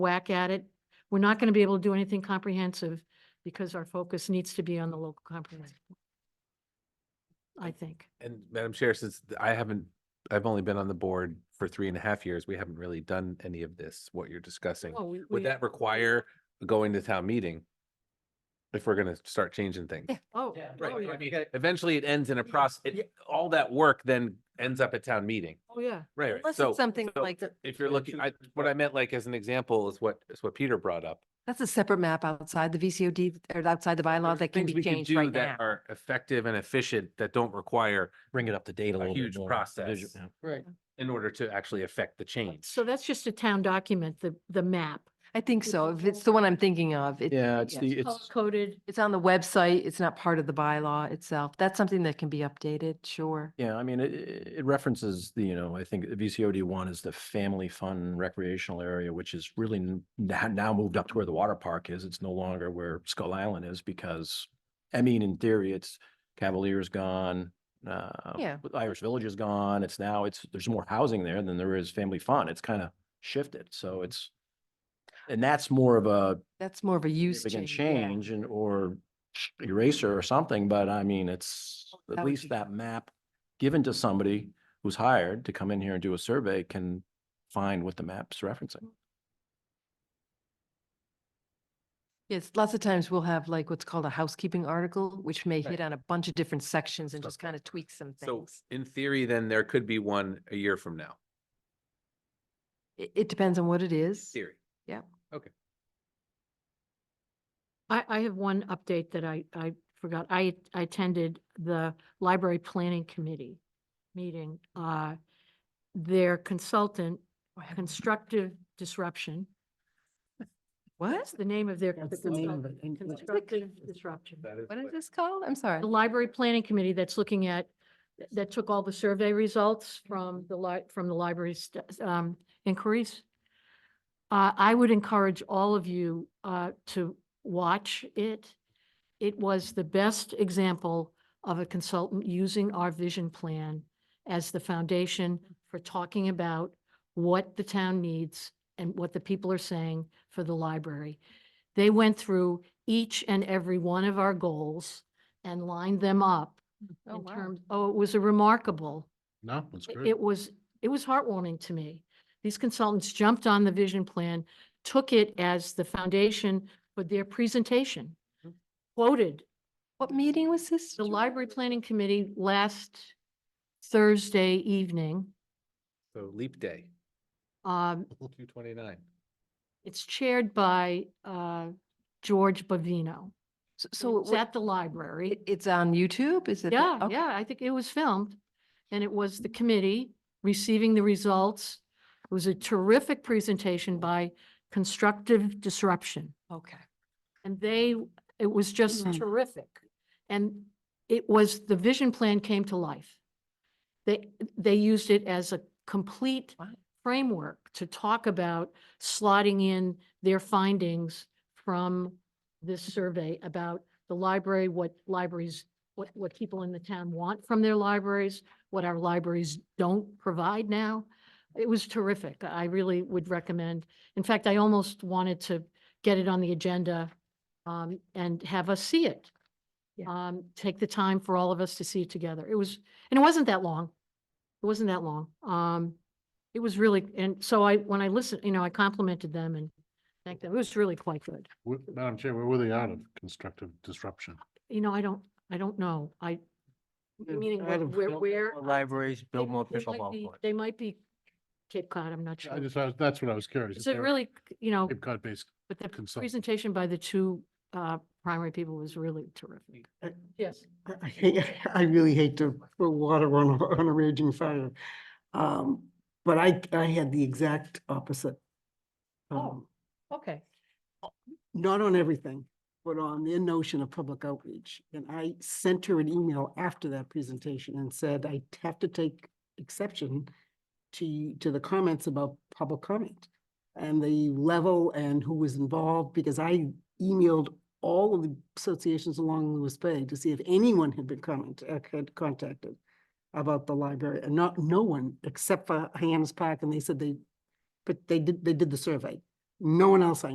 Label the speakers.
Speaker 1: whack at it. We're not going to be able to do anything comprehensive because our focus needs to be on the local comprehensive. plan, I think.
Speaker 2: And Madam Chair, since th- I haven't, I've only been on the board for three and a half years, we haven't really done any of this, what you're discussing.
Speaker 1: Oh, we- we-
Speaker 2: Would that require going to town meeting? If we're gonna start changing things?
Speaker 1: Oh,
Speaker 3: Yeah,
Speaker 1: oh,
Speaker 2: Right, I
Speaker 1: yeah,
Speaker 2: mean, eventually it ends in a process,
Speaker 1: Yeah.
Speaker 2: all that work then ends up at town meeting.
Speaker 1: oh, yeah.
Speaker 2: Right, right.
Speaker 4: Unless
Speaker 2: So
Speaker 4: it's something
Speaker 2: so
Speaker 4: like,
Speaker 2: if you're looking, I, what I meant like as an example is what, is what Peter brought up.
Speaker 4: that's a separate map outside the VCOD or outside the bylaw
Speaker 2: There's
Speaker 4: that can
Speaker 2: things
Speaker 4: be
Speaker 2: we
Speaker 4: changed
Speaker 2: do
Speaker 4: right now.
Speaker 2: that Are effective and efficient that don't require
Speaker 5: bring it up to date a
Speaker 2: a
Speaker 5: little bit.
Speaker 2: huge
Speaker 5: more,
Speaker 2: process.
Speaker 5: visu- yeah.
Speaker 3: Right.
Speaker 2: in order to actually affect the change.
Speaker 1: So that's just a town document, the, the map,
Speaker 4: I think so. If it's the one I'm thinking of, it,
Speaker 5: Yeah, it's
Speaker 4: yes.
Speaker 5: the,
Speaker 1: color
Speaker 5: it's,
Speaker 1: coded.
Speaker 4: it's on the website. It's not part of the bylaw itself. That's something that can be updated, sure.
Speaker 5: yeah, I mean, it, it references the, you know, I think VCOD one is the family fun recreational area, which is really n- now, now moved up to where the water park is. It's no longer where Skull Island is because, I mean, in theory, it's Cavalier's gone. Uh,
Speaker 4: Yeah.
Speaker 5: with Irish Village is gone. It's now, it's, there's more housing there than there is family fun. It's kind of shifted.
Speaker 4: Mm-hmm.
Speaker 5: So it's, and that's more of a
Speaker 4: That's more of a use
Speaker 5: significant
Speaker 4: change. yeah.
Speaker 5: change and or sh- eraser or something, but I mean, it's
Speaker 4: Oh, that
Speaker 5: at
Speaker 4: would
Speaker 5: least
Speaker 4: be-
Speaker 5: that map given to somebody who's hired to come in here and do a survey can find what the map's referencing.
Speaker 4: Yes, lots of times we'll have like what's called a housekeeping article, which may
Speaker 2: Right.
Speaker 4: hit on a bunch of different sections and
Speaker 2: Stuff
Speaker 4: just kind of tweak some
Speaker 2: So
Speaker 4: things.
Speaker 2: in theory, then there could be one a year from now,
Speaker 4: It, it depends on what it is.
Speaker 2: theory.
Speaker 1: I, I have one update that I, I forgot. I, I attended the Library Planning Committee meeting. Uh, Their consultant, Constructive Disruption,
Speaker 4: What?
Speaker 1: that's the name of their.
Speaker 3: That's the name of
Speaker 1: consultant,
Speaker 3: it.
Speaker 1: Constructive Disruption.
Speaker 4: What is this called? I'm sorry.
Speaker 1: The Library Planning Committee that's looking at, that took all the survey results from the li, from the library's, um, inquiries. Uh, I would encourage all of you, uh, to watch it. It was the best example of a consultant using our vision plan as the foundation for talking about what the town needs and what the people are saying for the library. They went through each and every one of our goals and lined them up
Speaker 4: Oh,
Speaker 1: in
Speaker 4: wow.
Speaker 1: terms, oh, it was a remarkable.
Speaker 5: No, that's
Speaker 1: It- It was, it was heartwarming to me. These consultants jumped on the vision plan, took it as the foundation for their presentation. Quoted
Speaker 4: What meeting was this?
Speaker 1: the
Speaker 4: Joy?
Speaker 1: library planning committee last Thursday evening.
Speaker 2: So leap day,
Speaker 1: Um,
Speaker 2: two twenty-nine.
Speaker 1: it's chaired by, uh, George Bavino.
Speaker 4: So- So
Speaker 1: So
Speaker 4: it
Speaker 1: it's
Speaker 4: wa-
Speaker 1: at the library.
Speaker 4: it- it's on YouTube? Is it?
Speaker 1: Yeah,
Speaker 4: that- okay.
Speaker 1: yeah, I think it was filmed. And it was the committee receiving the results. It was a terrific presentation by Constructive Disruption.
Speaker 4: Okay.
Speaker 1: And they, it was just
Speaker 3: Mm.
Speaker 1: terrific. And it was, the vision plan came to life. They, they used it as a complete
Speaker 4: Wow.
Speaker 1: framework to talk about slotting in their findings from this survey about the library, what libraries, what, what people in the town want from their libraries, what our libraries don't provide now. It was terrific. I really would recommend. In fact, I almost wanted to get it on the agenda um, and have us see it.
Speaker 4: Yeah.
Speaker 1: Um, take the time for all of us to see it together. It was, and it wasn't that long. It wasn't that long. Um, it was really, and so I, when I listened, you know, I complimented them and thanked them. It was really quite good.
Speaker 6: Wh- Madam Chair, where were they out of constructive disruption?
Speaker 1: You know, I don't, I don't know. I, meaning
Speaker 3: Out
Speaker 1: what-
Speaker 3: of
Speaker 1: where,
Speaker 3: Bill-
Speaker 1: where.
Speaker 3: Libraries,
Speaker 1: they-
Speaker 3: build more
Speaker 1: they might
Speaker 3: pickleball
Speaker 1: be-
Speaker 3: courts.
Speaker 1: They might be Cape Cod, I'm not
Speaker 6: I
Speaker 1: sure.
Speaker 6: just, I was- that's what I was curious. if
Speaker 1: So
Speaker 6: they were
Speaker 1: really, you know,
Speaker 6: Cape Cod based.
Speaker 1: but the
Speaker 6: consultant.
Speaker 1: presentation by the two uh, primary people was really terrific.
Speaker 3: I-
Speaker 1: Yes.
Speaker 3: I- I hate, I really hate to throw water on a, on a raging fire. Um, but I, I had the exact opposite.
Speaker 1: Oh.
Speaker 3: um,
Speaker 1: Okay.
Speaker 3: Not on everything, but on their notion of public outreach. And I sent her an email after that presentation and said, I have to take exception to, to the comments about public comment and the level and who was involved, because I emailed all of the associations along Lewis Bay to see if anyone had been comment, uh, had contacted about the library, and not, no one except for Hyannis Park, and they said they, but they did, they did the survey. No one else I